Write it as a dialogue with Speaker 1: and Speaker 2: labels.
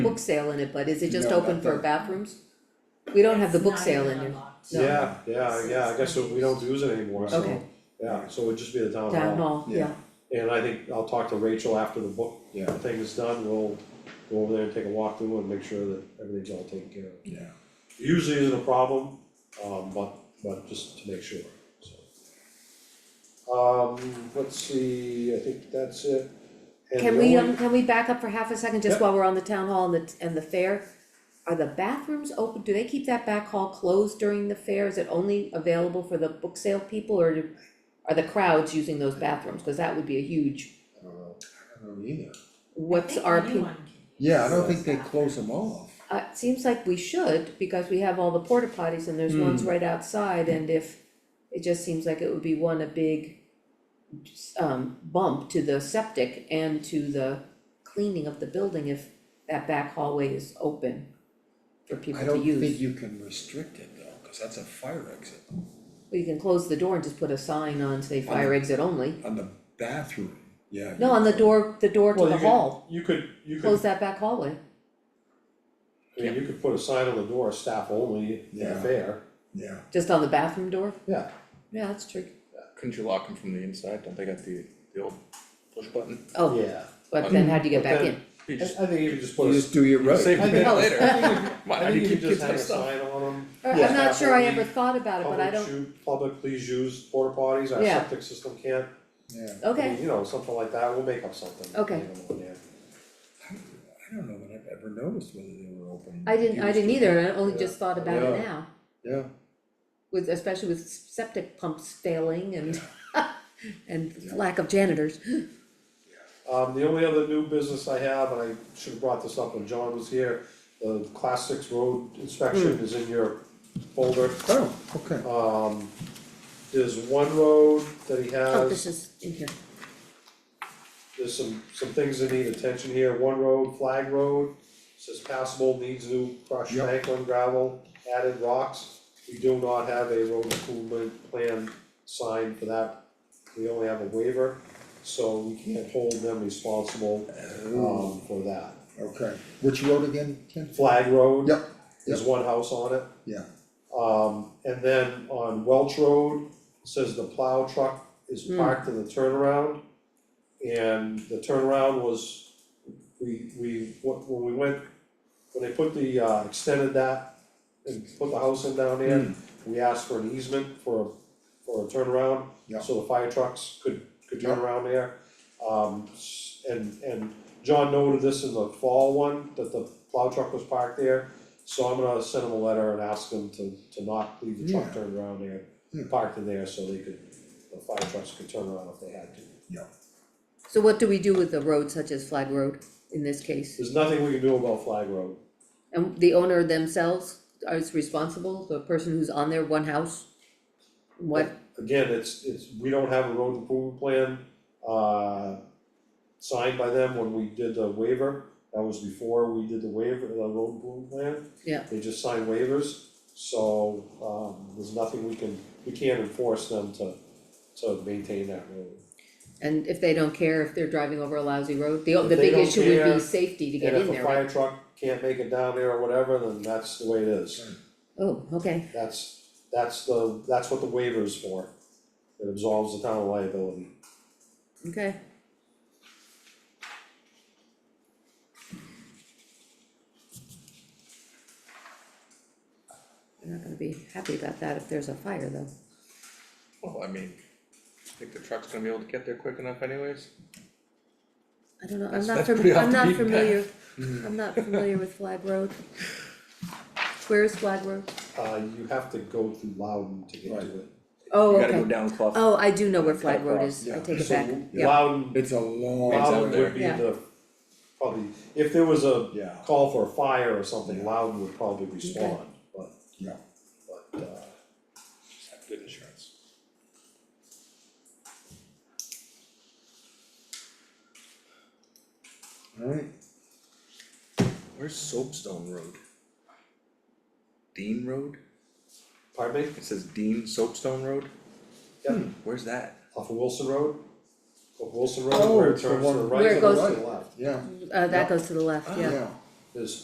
Speaker 1: book sale in it, but is it just
Speaker 2: No,
Speaker 1: open
Speaker 2: not
Speaker 1: for
Speaker 2: that.
Speaker 1: bathrooms? We don't have the book sale in there, No.
Speaker 3: Yeah, yeah, yeah, I guess we don't use it anymore, so,
Speaker 1: Okay.
Speaker 3: yeah, so it'd just be the town hall.
Speaker 1: town hall,
Speaker 2: Yeah.
Speaker 1: yeah,
Speaker 3: And I think I'll talk to Rachel after the book
Speaker 2: Yeah.
Speaker 3: thing is done, we'll go over there and take a walk through and make sure that everything's all taken care of.
Speaker 2: Yeah.
Speaker 3: Usually isn't a problem, um, but, but just to make sure, so. Um, let's see, I think that's it. And
Speaker 1: can
Speaker 3: the
Speaker 1: we,
Speaker 3: only-
Speaker 1: um, can we back up for half a second, just
Speaker 3: Yep.
Speaker 1: while we're on the town hall and the, and the fair? Are the bathrooms open, do they keep that back hall closed during the fair, is it only available for the book sale people, or do- are the crowds using those bathrooms, cause that would be a huge,
Speaker 2: I don't know, I don't know either.
Speaker 1: what's our, pe-
Speaker 2: Yeah, I don't think they close them off.
Speaker 1: uh, it seems like we should, because we have all the porta potties and there's ones right outside, and if. It just seems like it would be one, a big um bump to the septic and to the cleaning of the building if that back hallway is open. For people
Speaker 2: I
Speaker 1: to
Speaker 2: don't think
Speaker 1: use,
Speaker 2: you can restrict it though, cause that's a fire exit
Speaker 1: Well, you can close the door and just put a sign on, say fire exit only,
Speaker 2: on the bathroom, yeah.
Speaker 1: no, on the door, the door to
Speaker 3: Well,
Speaker 1: the
Speaker 3: you could-
Speaker 1: hall,
Speaker 3: You could, you could,
Speaker 1: close that back hallway.
Speaker 3: I mean, you could put a sign on the door, staff only, at the
Speaker 2: Yeah.
Speaker 3: fair,
Speaker 2: Yeah,
Speaker 1: Just on the bathroom door,
Speaker 3: yeah,
Speaker 1: yeah, that's tricky,
Speaker 4: Couldn't you lock them from the inside? Don't they got the, the old push button?
Speaker 1: oh,
Speaker 3: yeah.
Speaker 1: but then how do you get
Speaker 3: But
Speaker 1: back
Speaker 3: then-
Speaker 1: in?
Speaker 4: You
Speaker 3: I,
Speaker 4: just
Speaker 3: I think you could just put
Speaker 2: you
Speaker 3: a
Speaker 2: just do your road.
Speaker 4: save
Speaker 3: I
Speaker 4: the
Speaker 3: think-
Speaker 4: minute later. Why, how
Speaker 3: I
Speaker 4: do
Speaker 3: think
Speaker 4: you
Speaker 3: you
Speaker 4: keep
Speaker 3: could just
Speaker 4: kids
Speaker 3: have
Speaker 4: out
Speaker 3: a
Speaker 4: of stuff?
Speaker 3: sign on them,
Speaker 1: Or-
Speaker 3: Yeah.
Speaker 1: Uh, I'm not sure I
Speaker 3: Staff only,
Speaker 1: ever thought about it, but I
Speaker 3: public
Speaker 1: don't,
Speaker 3: shoot, public, please use porta potties, our
Speaker 1: Yeah.
Speaker 3: septic system can't,
Speaker 2: Yeah,
Speaker 3: I mean,
Speaker 1: okay,
Speaker 3: you know, something like that, we'll make up something.
Speaker 1: Okay.
Speaker 3: depending on there.
Speaker 2: I don't know that I've ever noticed whether they were open.
Speaker 1: I didn't, I
Speaker 2: used
Speaker 1: didn't
Speaker 2: to.
Speaker 1: either, and I only
Speaker 3: Yeah.
Speaker 1: just thought about it
Speaker 3: Yeah.
Speaker 1: now,
Speaker 2: Yeah,
Speaker 1: with, especially with septic pumps failing and and
Speaker 2: Yeah.
Speaker 1: lack of janitors.
Speaker 3: Um, the only other new business I have, and I should have brought this up when John was here, the class six road inspection
Speaker 1: Hmm.
Speaker 3: is in your folder.
Speaker 2: oh, okay,
Speaker 3: Um, there's one road that he
Speaker 1: Oh, this
Speaker 3: has,
Speaker 1: is in here,
Speaker 3: there's some, some things that need attention here, one road, Flag Road, says passable, needs new crushed
Speaker 2: Yep.
Speaker 3: Franklin gravel, added rocks. We do not have a road improvement plan signed for that, we only have a waiver, so we can't hold them responsible
Speaker 2: oh,
Speaker 3: um for that.
Speaker 2: okay, which road again, Ken?
Speaker 3: Flag Road.
Speaker 2: Yep,
Speaker 3: There's one house on it.
Speaker 2: yeah,
Speaker 3: Um, and then on Welch Road, says the plow truck is
Speaker 1: Hmm.
Speaker 3: parked in the turnaround. And the turnaround was, we, we, wh- when we went, when they put the, uh, extended that and put the house in down there,
Speaker 2: Hmm.
Speaker 3: we asked for an easement for, a- for a turnaround.
Speaker 2: Yeah.
Speaker 3: So the fire trucks could, could turn
Speaker 2: Yeah.
Speaker 3: around there. Um, s- and, and John noted this in the fall one, that the plow truck was parked there. So I'm gonna send them a letter and ask them to, to not leave the truck
Speaker 2: Yeah.
Speaker 3: turned around there,
Speaker 2: Hmm.
Speaker 3: parked in there so they could, the fire trucks could turn around if they had to.
Speaker 2: yeah,
Speaker 1: so what do we do with the road such as Flag Road in this case?
Speaker 3: There's nothing we can do about Flag Road.
Speaker 1: And the owner themselves is responsible, the person who's on their one house? What,
Speaker 3: Again, it's, it's, we don't have a road improvement plan, uh, signed by them when we did the waiver. That was before we did the waiver, the road improvement plan.
Speaker 1: Yeah.
Speaker 3: They just signed waivers, so, um, there's nothing we can, we can't enforce them to, to maintain that road.
Speaker 1: and if they don't care if they're driving over a lousy road, the,
Speaker 3: If
Speaker 1: the
Speaker 3: they
Speaker 1: big
Speaker 3: don't
Speaker 1: issue would be
Speaker 3: care,
Speaker 1: safety to get
Speaker 3: And
Speaker 1: in
Speaker 3: if a
Speaker 1: there, right?
Speaker 3: fire truck can't make it down there or whatever, then that's the way it is.
Speaker 1: Oh, okay,
Speaker 3: That's, that's the, that's what the waiver is for. It absolves the town of liability.
Speaker 1: okay. They're not gonna be happy about that if there's a fire though.
Speaker 4: Well, I mean, think the truck's gonna be able to get there quick enough anyways?
Speaker 1: I don't know, I'm
Speaker 4: That's-
Speaker 1: not
Speaker 4: that's
Speaker 1: familiar,
Speaker 4: pretty off
Speaker 1: I'm
Speaker 4: the
Speaker 1: not
Speaker 4: beaten path.
Speaker 1: familiar, I'm not familiar with Flag Road. Where is Flag Road?
Speaker 3: Uh, you have to go through Loudon to get to it.
Speaker 1: Oh,
Speaker 4: You gotta go
Speaker 1: okay,
Speaker 4: down Clough.
Speaker 1: oh, I do know where Flag Road is, I
Speaker 2: Yeah.
Speaker 1: take it
Speaker 3: So
Speaker 1: back, yeah,
Speaker 3: Loudon,
Speaker 2: it's a long.
Speaker 4: It's out
Speaker 3: Loudon
Speaker 4: there.
Speaker 3: would be
Speaker 1: Yeah.
Speaker 3: the, probably, if there was a
Speaker 2: Yeah.
Speaker 3: call for a fire or something,
Speaker 2: Yeah.
Speaker 3: Loudon would probably respond, but,
Speaker 2: Yeah,
Speaker 3: but, uh,
Speaker 4: Have Good insurance.
Speaker 2: alright,
Speaker 4: Where's Soapstone Road? Dean Road?
Speaker 3: pardon me?
Speaker 4: It says Dean Soapstone Road?
Speaker 3: Yep,
Speaker 1: Hmm.
Speaker 4: Where's that?
Speaker 3: off of Wilson Road, off Wilson
Speaker 2: Oh,
Speaker 3: Road, where it
Speaker 2: it's the
Speaker 3: turns to the
Speaker 2: one-
Speaker 3: right
Speaker 1: Where
Speaker 3: and
Speaker 1: it
Speaker 3: the
Speaker 1: goes-
Speaker 3: left.
Speaker 2: yeah,
Speaker 1: uh,
Speaker 2: Yeah. Ah.
Speaker 1: that goes to the left, yeah,
Speaker 2: yeah,
Speaker 3: there's